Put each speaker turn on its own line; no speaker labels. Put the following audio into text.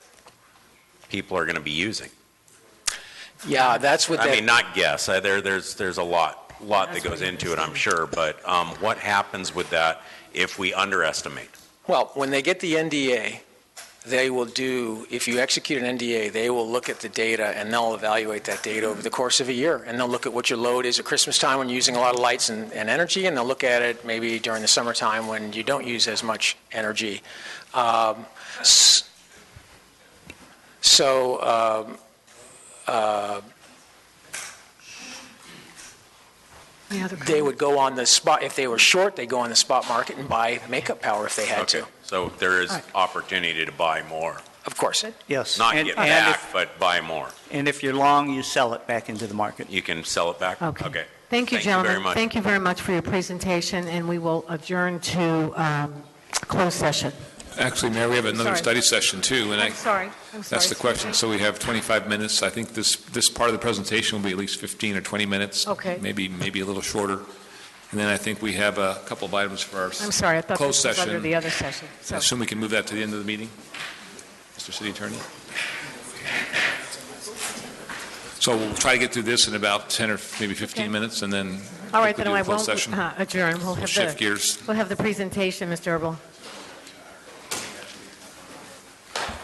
people are going to be using.
Yeah, that's what
I mean,
that,
not guess, Uh, there, there's, there's a lot, lot that goes into it, I'm sure, but um, what happens with that if we underestimate?
well, when they get the NDA, they will do, if you execute an NDA, they will look at the data and they'll evaluate that data over the course of a year. And they'll look at what your load is at Christmas time when you're using a lot of lights and, and energy, and they'll look at it maybe during the summertime when you don't use as much energy. Um, s- So, um, uh,
Any other
they
comments?
would go on the spot, if they were short, they'd go on the spot market and buy makeup power if they had
Okay,
to,
So there is opportunity to buy more,
of course.
Yes.
not
and-
get
and
back,
if-
but buy more.
And if you're long, you sell it back into the market.
You can sell it back?
Okay. Thank you,
Thank you very
gentlemen.
much.
Thank you very much for your presentation, and we will adjourn to um, closed session.
Actually, Mayor, we have another
sorry.
study session too, and I,
I'm sorry, I'm sorry.
that's the question. So we have 25 minutes. I think this, this part of the presentation will be at least 15 or 20 minutes.
Okay.
Maybe, maybe a little shorter. And then I think we have a couple of items for our.
I'm sorry, I thought
Closed
this was under
session.
the other session. So-
Assume we can move that to the end of the meeting, Mr. City Attorney? So we'll try to get through this in about 10 or maybe
Okay.
15 minutes, and then
All right,
quickly
then
do
I
the closed
won't Uh-huh.
session.
uh, adjourn. We'll
We'll
have
shift
the,
gears.
we'll have the presentation, Mr. Erble.